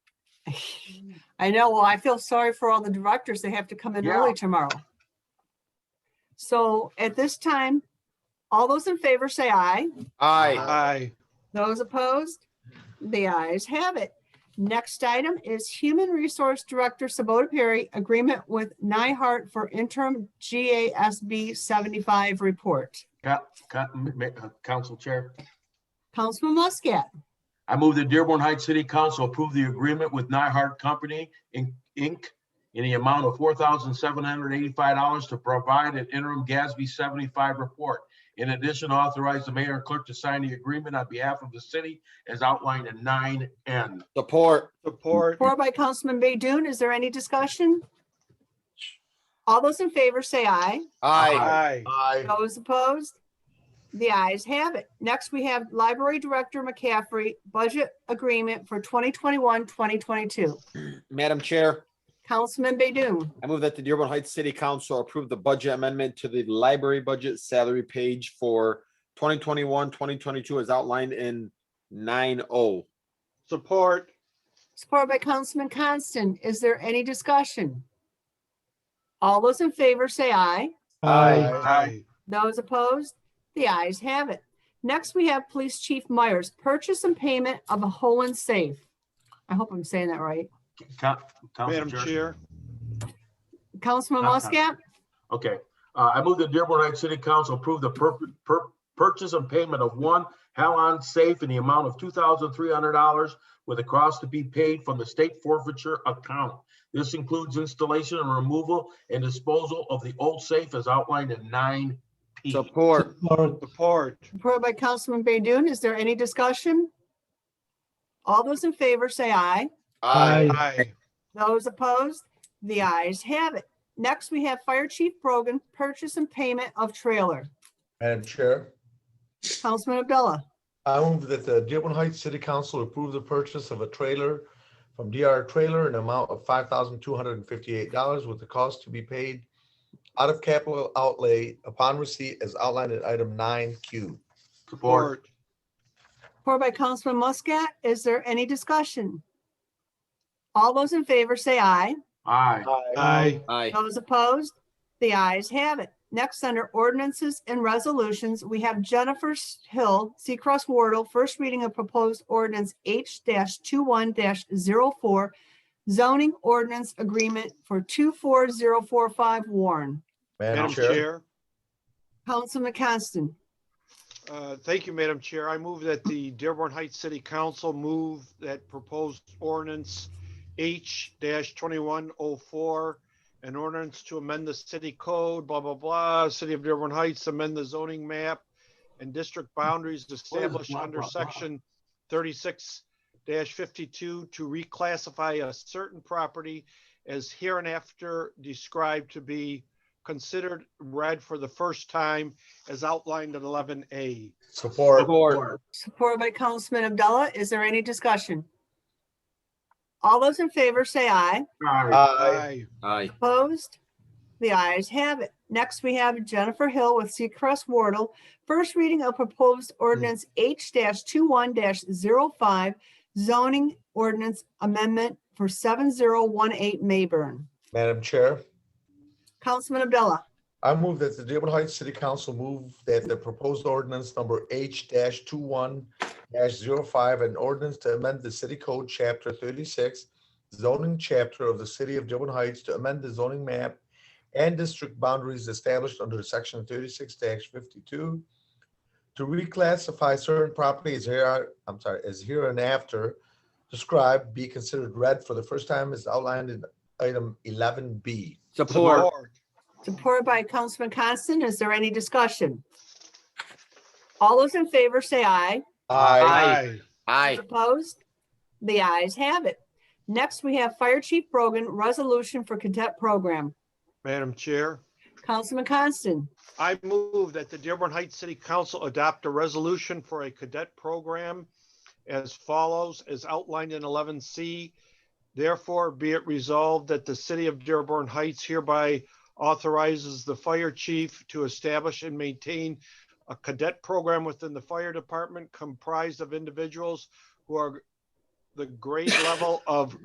I know, well, I feel sorry for all the directors. They have to come in Yeah. early tomorrow. So at this time, all those in favor say aye. Aye. Aye. Those opposed? The ayes have it. Next item is Human Resource Director Sabota Perry, agreement with Nyhart for interim GASB 75 report. Ca- ca- m- m- uh, Council Chair, Councilman Muscat, I move the Dearborn Heights City Council approve the agreement with Nyhart Company Inc. Inc. in the amount of four thousand seven hundred eighty-five dollars to provide an interim GASB seventy-five report. In addition, authorize the mayor and clerk to sign the agreement on behalf of the city as outlined in nine N. Support. Support. four by Councilman Baydoun. Is there any discussion? All those in favor say aye. Aye. Aye. Aye. Those opposed? The ayes have it. Next, we have Library Director McCaffrey, budget agreement for 2021, 2022. Madam Chair, Councilman Baydoun. I move that the Dearborn Heights City Council approve the budget amendment to the library budget salary page for 2021, 2022 as outlined in oh. 9O. Support. Supported by Councilman Constant. Is there any discussion? All those in favor say aye. Aye. Aye. Those opposed? The ayes have it. Next, we have Police Chief Myers, purchase and payment of a Holland safe. I hope I'm saying that right. Ca- Council Madam Chair. Chair, Councilman Uh-huh. Muscat, Okay, uh, I move the Dearborn Heights City Council approve the pur- pur- purchase and payment of one Halon safe in the amount of two thousand three hundred dollars with a cost to be paid from the state forfeiture account. This includes installation and removal and disposal of the old safe as outlined in nine P. Support. support. supported by Councilman Baydoun. Is there any discussion? All those in favor say aye. Aye. Aye. Those opposed? The ayes have it. Next, we have Fire Chief Brogan, purchase and payment of trailer. Madam Chair, Councilman Abdullah. I move that the Dearborn Heights City Council approve the purchase of a trailer from DR Trailer in amount of five thousand two hundred and fifty-eight dollars with the cost to be paid out of capital outlay upon receipt as outlined in item nine Q. Support. Support by Councilman Muscat. Is there any discussion? All those in favor say aye. Aye. Aye. Aye. Those opposed? The ayes have it. Next, under ordinances and resolutions, we have Jennifer Hill, Seacrest Wardle, first reading of proposed ordinance H 21 4 oh zoning ordinance agreement for two four zero four five Warren. Madam Madam Chair, Chair, Councilman Constant, uh, thank you, Madam Chair. I move that the Dearborn Heights City Council move that proposed ordinance H twenty-one oh four, an ordinance to amend the city code, blah, blah, blah, City of Dearborn Heights, amend the zoning map and district boundaries established blah, under blah, blah? section thirty-six fifty-two to reclassify a certain property as hereinafter described to be considered red for the first time as outlined in eleven A. support. Support. supported by Councilman Abdullah. Is there any discussion? All those in favor say aye. Aye. Aye. Aye. Opposed? The ayes have it. Next, we have Jennifer Hill with Seacrest Wardle. First reading of proposed ordinance H 21 5 zoning ordinance amendment for seven zero one eight Mayburn. Madam Chair, Councilman Abdullah, I move that the Dearborn Heights City Council move that the proposed ordinance number H 21 5 an ordinance to amend the city code chapter thirty-six zoning chapter of the city of Dearborn Heights to amend the zoning map and district boundaries established under section thirty-six fifty-two to reclassify certain properties here, I'm sorry, as hereinafter described be considered red for the first time as outlined in item eleven B. Support. supported by Councilman Constant. Is there any discussion? All those in favor say aye. Aye. Aye. Opposed? The ayes have it. Next, we have Fire Chief Brogan, resolution for cadet program. Madam Chair, Councilman Constant. I move that the Dearborn Heights City Council adopt a resolution for a cadet program as follows, as outlined in eleven C. Therefore, be it resolved that the city of Dearborn Heights hereby authorizes the fire chief to establish and maintain a cadet program within the fire department comprised of individuals who are the grade level of